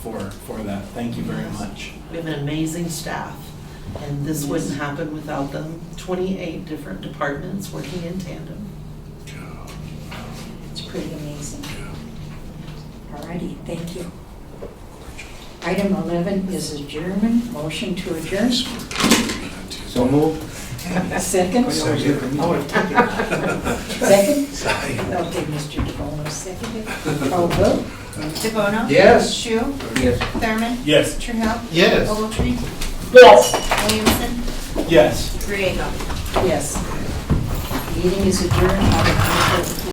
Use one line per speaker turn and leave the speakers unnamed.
for, for that. Thank you very much.
We have an amazing staff, and this wouldn't happen without them. Twenty-eight different departments working in tandem.
It's pretty amazing. Alrighty, thank you. Item 11 is adjournment, motion to adjourn.
So move.
Second? Second? Okay, Mr. DeBono, seconded. Call vote?
DeBono?
Yes.
Shu?
Yes.
Thurman?
Yes.
Trahell?
Yes.
Ogletree?
Yes.
Williamson?
Yes.
Griego?
Yes. Meeting is adjourned. Have a wonderful-